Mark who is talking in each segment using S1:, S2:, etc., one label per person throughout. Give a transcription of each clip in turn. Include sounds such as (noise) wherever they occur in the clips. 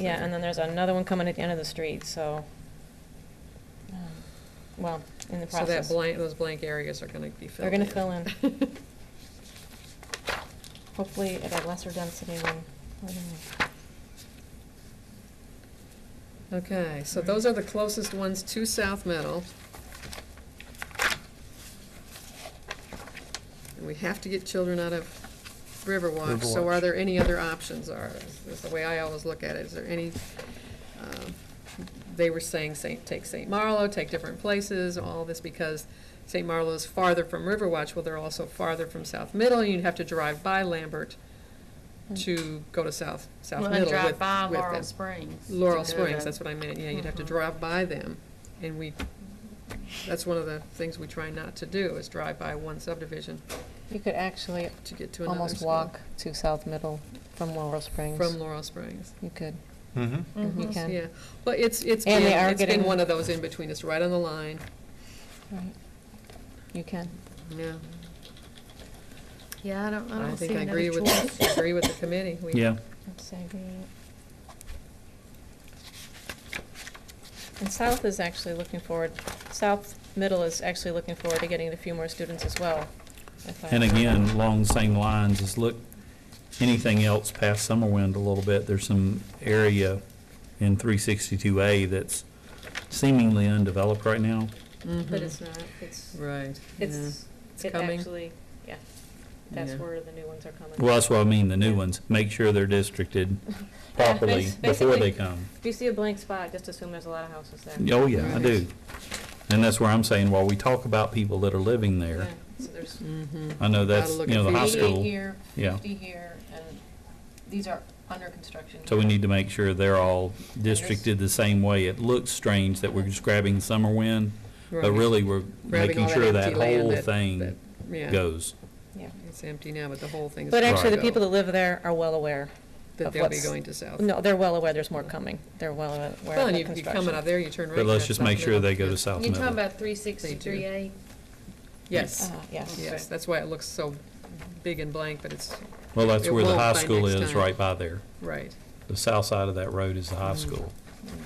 S1: Yeah, and then there's another one coming at the end of the street, so, um, well, in the
S2: So that
S1: process.
S2: blank, those blank areas are gonna be
S1: They're
S2: filled in.
S1: gonna fill in.
S2: (laughs)
S1: Hopefully at a lesser density than, I don't know.
S2: Okay, so those are the closest ones to South Meadow. And we have to get children out of Riverwatch, so are
S3: Riverwatch.
S2: there any other options, or, is the way I always look at it, is there any, um, they were saying, Saint, take Saint Marlowe, take different places, all this because Saint Marlowe's farther from Riverwatch, well, they're also farther from South Middle, and you'd have to drive by Lambert to go to South, South
S4: Hmm. Well,
S2: Middle
S4: and
S2: with, with them.
S4: drive by Laurel Springs.
S2: Laurel
S4: to go
S2: Springs,
S4: to-
S2: that's what I meant, yeah, you'd have to
S4: Mhm.
S2: drive by them, and we, that's one of the things we try not to do, is drive by one subdivision
S5: You could actually
S2: to get to another
S5: almost
S2: school.
S5: walk to South Middle from Laurel Springs.
S2: From Laurel Springs,
S5: You could,
S3: Mm-hmm.
S5: you
S4: Mhm.
S5: can.
S2: yeah, but it's, it's
S5: And
S2: been,
S5: they are
S2: it's been
S5: getting-
S2: one of those in between, it's right on the line,
S5: Right. You can.
S2: yeah.
S4: Yeah, I don't, I
S2: I
S4: don't see
S2: think I
S4: another
S2: agree with, (laughs)
S4: choice.
S2: agree with the committee, we,
S6: Yeah,
S1: Let's say the- And South is actually looking forward, South Middle is actually looking forward to getting a few more students as well. if I-
S6: and again, along the same lines, is look, anything else past Summerwind a little bit, there's some area in 362A that's seemingly undeveloped right now.
S1: But
S2: Mhm.
S1: it's not, it's,
S2: right, yeah,
S1: it's,
S2: It's
S1: it
S2: coming.
S1: actually, yeah, that's
S2: Yeah.
S1: where the new ones are coming.
S6: Well, that's what I mean, the new ones, make sure they're districted
S1: (laughs)
S6: properly
S1: bas-
S6: before they
S1: basically-
S6: come.
S1: If you see a blank spot, just assume there's a lot of houses there.
S6: Oh, yeah, I
S2: Right.
S6: do. And that's where I'm saying, while we talk about people that are living there,
S1: Yeah, So there's
S2: mhm.
S6: I know that's,
S2: Gotta look
S6: you know,
S2: at
S6: the high
S2: feasibility.
S6: school,
S5: here,
S6: yeah.
S5: here, and these are under construction.
S6: So we need to make sure they're all districted the same way. It looks strange that we're just grabbing summer wind, but
S2: Right.
S6: really, we're
S2: Grabbing all
S6: making sure that
S2: empty land
S6: whole
S2: that- that-
S6: thing
S2: yeah,
S6: goes.
S1: Yeah.
S2: It's empty now, but the whole thing's.
S1: But
S2: gonna
S1: actually, the
S2: go,
S1: people that live there are well aware.
S2: That
S1: of
S2: they'll be
S1: what's-
S2: going to South.
S1: No, they're well aware there's more coming. They're well aware of
S2: Well, and
S1: the
S2: you, you come out
S1: construction.
S2: of there, you turn right.
S6: But let's
S2: that's
S6: just
S2: South
S6: make sure
S2: Middle.
S6: they go to South
S4: You're talking
S6: Middle.
S4: about three sixty-three A?
S2: Yes,
S1: Uh, Yes.
S2: yes, that's why it looks so big and blank, but it's,
S6: Well, that's
S2: it
S6: where the
S2: won't
S6: high
S2: by
S6: school
S2: next
S6: is,
S2: time.
S6: right by there.
S2: right,
S6: The south side of that road is the high
S2: Mm.
S6: school.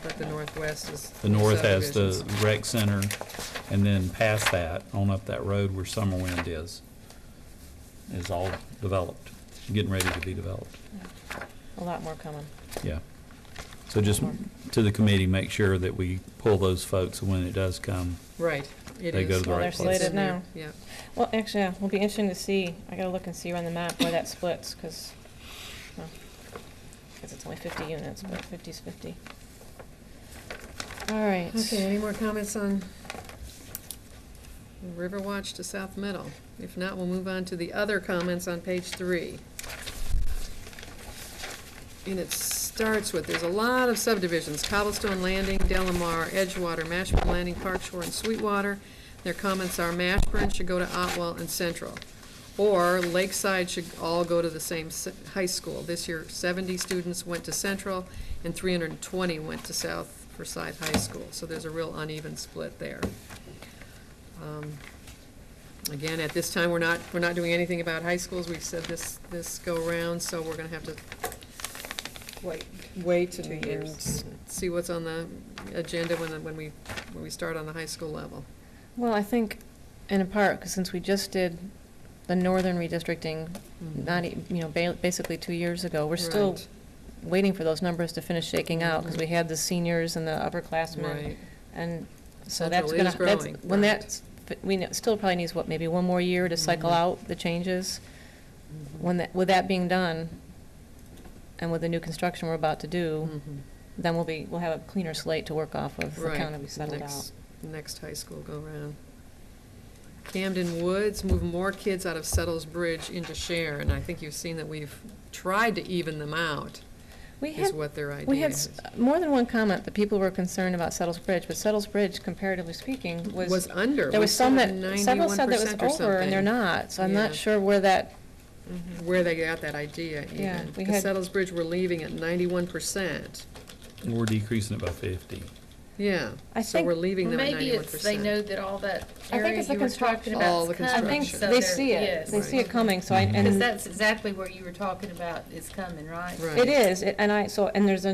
S2: but the northwest is.
S6: The north has the
S2: subdivisions.
S6: rec center, and then past that, on up that road where summer wind is, is all developed, getting ready to be developed.
S1: A lot more coming.
S6: Yeah. So just to the committee, make sure that we pull those folks when it does come.
S2: Right, it is.
S6: They go to the
S1: Well,
S6: right
S1: they're
S6: place.
S1: slated now.
S2: Yeah,
S1: Well, actually, yeah, it'll be interesting to see. I gotta look and see on the map where that splits, because, it's only fifty units, but fifty's fifty. All right.
S2: okay, any more comments on Riverwatch to South Middle? If not, we'll move on to the other comments on page three. And it starts with, there's a lot of subdivisions, Cobblestone Landing, Delamar, Edgewater, Mashburn Landing, Park Shore, and Sweetwater. Their comments are Mashburn should go to Otwell and Central, or Lakeside should all go to the same s- high school. This year, seventy students went to Central, and three hundred and twenty went to South Forsyth High School, so there's a real uneven split there. Um, Again, at this time, we're not, we're not doing anything about high schools, we've said this, this go-round, so we're gonna have to
S1: Wait.
S2: wait
S1: Two
S2: and
S1: years.
S2: s- see what's on the agenda when, when we, when we start on the high school level.
S1: Well, I think, in a part, 'cause since we just did the northern redistricting, not, e- you know, ba- basically two years ago, we're still
S2: Mm-hmm. Right,
S1: waiting for those numbers to finish shaking out, because we had the seniors and the upperclassmen,
S2: Right,
S1: and so
S2: Central
S1: that's
S2: is
S1: gonna, that's,
S2: growing,
S1: when
S2: right.
S1: that's, but we know- still probably needs, what, maybe one more year to cycle
S2: Mhm.
S1: out the changes?
S2: Mm-hmm.
S1: When that, with that being done, and with the new construction we're about to do,
S2: Mhm.
S1: then we'll be, we'll have a cleaner slate to work off of, the
S2: Right.
S1: kind of we settled out.
S2: Next- Next high school go-round. Camden Woods, move more kids out of Settles Bridge into Sharon. I think you've seen that we've tried to even them out,
S1: We
S2: is
S1: had,
S2: what their idea is.
S1: we had s- more than one comment that people were concerned about Settles Bridge, but Settles Bridge, comparatively speaking,
S2: Was under.
S1: There
S2: we
S1: was some
S2: said
S1: that, several said that was
S2: 91% or
S1: over, and they're
S2: something,
S1: not, so I'm
S2: Yeah.
S1: not sure where that,
S2: Where they got that idea even.
S1: Yeah, we
S2: Because
S1: had-
S2: Settles Bridge were leaving at ninety-one percent.
S6: We're decreasing it by 50.
S2: Yeah,
S1: I
S2: so we're
S1: think,
S2: leaving them at
S4: Maybe
S2: ninety-one
S4: it's, they know
S2: percent.
S4: that all
S1: I
S4: that
S1: think
S4: area
S1: it's the
S4: you were talking
S1: construction.
S2: All
S4: about
S2: the
S4: is
S1: I
S4: coming.
S1: think
S2: construction.
S4: so
S1: they
S4: they're-
S1: see it,
S4: yes.
S1: they see it coming, so I,
S6: Mhm.
S1: and
S4: Because
S1: it
S4: that's exactly what you were talking about, is coming, right?
S2: Right.
S1: is, it- and I, so, and there's a